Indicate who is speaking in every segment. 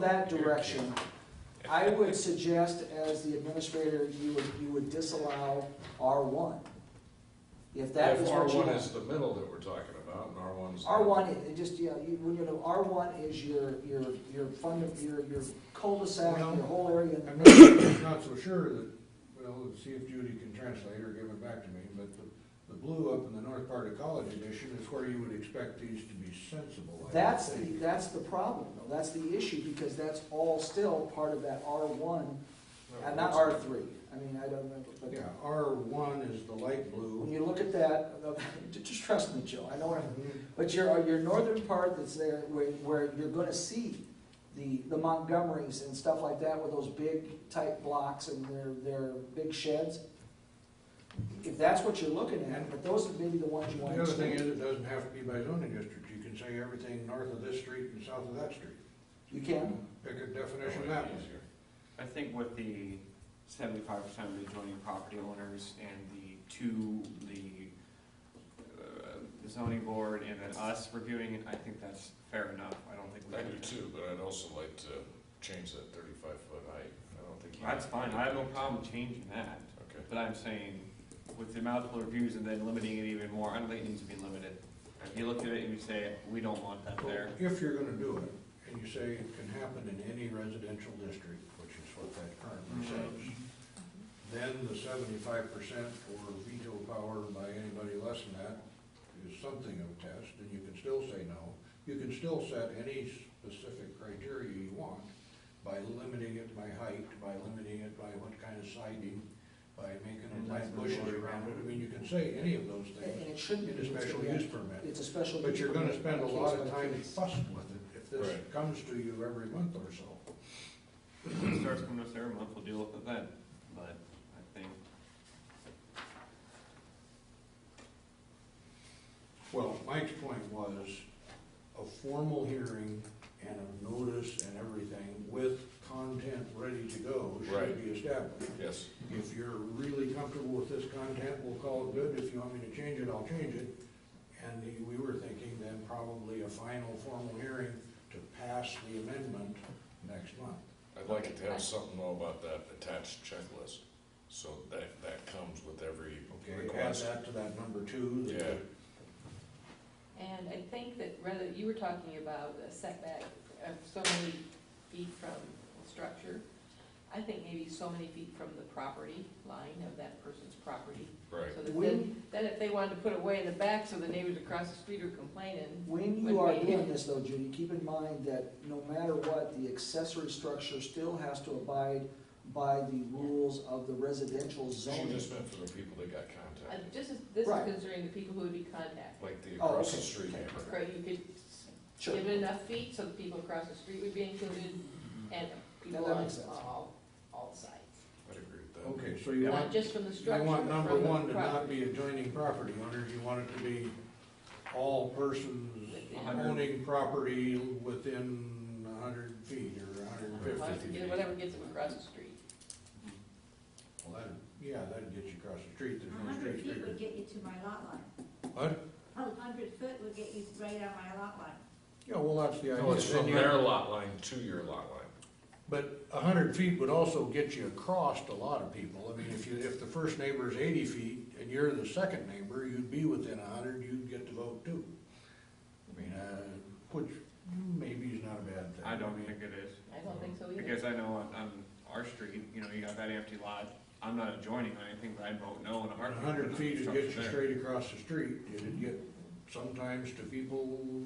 Speaker 1: that direction, I would suggest as the administrator, you would, you would disallow R one. If that
Speaker 2: If
Speaker 1: was
Speaker 2: R
Speaker 1: what you.
Speaker 2: one is the middle that we're talking about, and R one's.
Speaker 1: R one, it just, you know, you, when you know, R one is your, your, your fund, your, your cul-de-sac, your
Speaker 3: Well-
Speaker 1: whole area.
Speaker 3: I'm not, not so sure that, well, let's see if Judy can translate or give it back to me, but the, the blue up in the north part of College Edition is where you would expect these to be sensible, I would
Speaker 1: That's the,
Speaker 3: think.
Speaker 1: that's the problem, though, that's the issue, because that's all still part of that R one, and uh, not R three, I mean, I don't know, but.
Speaker 3: Yeah, R one is the light
Speaker 1: When
Speaker 3: blue.
Speaker 1: you look at that, just trust me, Joe, I know what I'm But your, your northern part that's there, where, where you're gonna see the, the Montgomerys and stuff like that with those big tight blocks and their, their big sheds. If that's what you're looking at, but those are maybe the ones you
Speaker 3: The
Speaker 1: wanna
Speaker 3: other thing is,
Speaker 1: change.
Speaker 3: it doesn't have to be by zoning district, you can say everything north of this street and south of that street.
Speaker 1: You can,
Speaker 3: Pick a definition that way.
Speaker 4: I think with the seventy-five percent of the adjoining property owners and the two, the uh, zoning board and then us reviewing it, I think that's fair enough. I don't think we
Speaker 2: I do
Speaker 4: can.
Speaker 2: too, but I'd also like to change that thirty-five foot height, I don't think. you-
Speaker 4: That's fine, I have no problem changing that,
Speaker 2: Okay,
Speaker 4: but I'm saying with the multiple reviews and then limiting it even more, I don't think it needs to be limited. If you look at it and you say, we don't want that there,
Speaker 3: If you're gonna do it, and you say it can happen in any residential district, which is what that currently says, then the seventy-five percent for veto power by anybody less than that is something of a test, and you can still say no. You can still set any specific criteria you want by limiting it by height, by limiting it by what kind of siding, by making them plant bushes around it. I mean, you can say any of those
Speaker 1: and
Speaker 3: things
Speaker 1: it shouldn't be.
Speaker 3: in a special use permit.
Speaker 1: It's a special. use
Speaker 3: But you're gonna
Speaker 1: permit,
Speaker 3: spend a
Speaker 1: case
Speaker 3: lot
Speaker 1: by
Speaker 3: of time
Speaker 1: case.
Speaker 3: fussing with it if this
Speaker 2: Right.
Speaker 3: comes to you every month or so.
Speaker 4: if it starts coming to us every month, we'll deal with it then. But I think
Speaker 3: Well, Mike's point was a formal hearing and a notice and everything with content ready to go should
Speaker 2: Right.
Speaker 3: be established.
Speaker 2: yes,
Speaker 3: If you're really comfortable with this content, we'll call it good. If you want me to change it, I'll change it. And the- we were thinking then probably a final formal hearing to pass the amendment next month.
Speaker 2: I'd like it to have something though about that attached checklist, so that, that comes with every
Speaker 3: Okay, add
Speaker 2: request.
Speaker 3: that to that number two. that-
Speaker 2: Yeah.
Speaker 5: And I think that rather, you were talking about a setback of so many feet from the structure. I think maybe so many feet from the property line of that person's property.
Speaker 2: Right,
Speaker 5: So that
Speaker 1: When-
Speaker 5: then, then if they wanted to put away in the back so the neighbors across the street are complaining,
Speaker 1: When you are doing this though, Judy, keep in mind that no matter what, the accessory structure still has to abide by the rules of the residential
Speaker 2: she
Speaker 1: zoning.
Speaker 2: just meant for the people that got
Speaker 5: uh,
Speaker 2: contacted,
Speaker 5: just as, this is
Speaker 1: Right.
Speaker 5: concerning the people who would be contacted.
Speaker 2: like the
Speaker 1: Oh,
Speaker 2: across the
Speaker 1: okay,
Speaker 2: street
Speaker 1: okay.
Speaker 2: neighbor.
Speaker 5: Right, you could
Speaker 1: Sure.
Speaker 5: give it enough feet so the people across the street would be included
Speaker 3: Mm-hmm.
Speaker 5: and people
Speaker 1: that
Speaker 5: on
Speaker 1: makes sense.
Speaker 5: on all, all sides.
Speaker 2: I'd agree with that.
Speaker 3: Okay, so you want
Speaker 5: Not just from the
Speaker 3: I
Speaker 5: structure,
Speaker 3: want
Speaker 5: but
Speaker 3: number
Speaker 5: from the
Speaker 3: one to not
Speaker 5: property.
Speaker 3: be adjoining property owners, you want it to be all persons owning property within a hundred feet or hundred and
Speaker 5: Well,
Speaker 3: fifty
Speaker 5: it's-
Speaker 3: feet.
Speaker 5: Whatever gets them across the street.
Speaker 3: Well, that, yeah, that'd get you across the street,
Speaker 6: A
Speaker 3: there's no
Speaker 6: hundred
Speaker 3: streets
Speaker 6: feet
Speaker 3: bigger.
Speaker 6: would get you to my lot line.
Speaker 3: What?
Speaker 6: A hundred foot would get you right on my lot line.
Speaker 3: Yeah, well, that's the idea.
Speaker 2: No, it's
Speaker 3: Then
Speaker 2: from
Speaker 3: you-
Speaker 2: their lot line to your lot line.
Speaker 3: But a hundred feet would also get you across a lot of people, I mean, if you, if the first neighbor's eighty feet and you're the second neighbor, you'd be within a hundred, you'd get to vote too. I mean, uh, which maybe is not a bad thing.
Speaker 4: I don't think it is.
Speaker 5: I don't think so either.
Speaker 4: Because I know on, on our street, you know, you got that empty lot, I'm not adjoining or anything, but I vote no on a
Speaker 3: A
Speaker 4: heartbeat.
Speaker 3: hundred feet would get you
Speaker 4: There.
Speaker 3: straight across the street, it'd get sometimes to people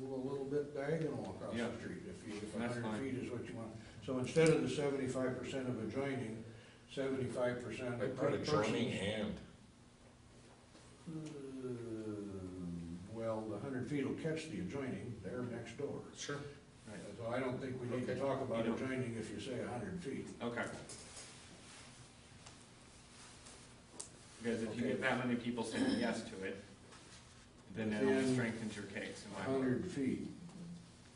Speaker 3: a little bit diagonal across
Speaker 4: Yeah.
Speaker 3: the street, if you, if a
Speaker 4: That's
Speaker 3: hundred
Speaker 4: fine.
Speaker 3: feet is what you want. So instead of the seventy-five percent of adjoining, seventy-five percent
Speaker 2: I
Speaker 3: of
Speaker 2: put adjoining
Speaker 3: persons.
Speaker 2: and,
Speaker 3: Um, Well, the hundred feet will catch the adjoining, they're next door.
Speaker 2: sure,
Speaker 3: So I don't think we need to
Speaker 2: Okay.
Speaker 3: talk about
Speaker 4: You don't-
Speaker 3: adjoining if you say a hundred feet.
Speaker 4: Okay. Because if you
Speaker 3: Okay.
Speaker 4: get that many people saying yes to it, then that only
Speaker 3: Within
Speaker 4: strengthens your case, in
Speaker 3: A
Speaker 4: my opinion.
Speaker 3: hundred feet,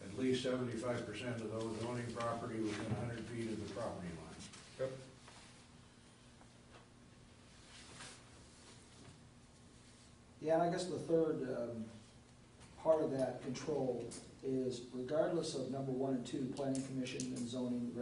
Speaker 3: at least seventy-five percent of those owning property within a hundred feet of the property line.
Speaker 1: Yeah, and I guess the third um, part of that control is regardless of number one and two, planning commission and zoning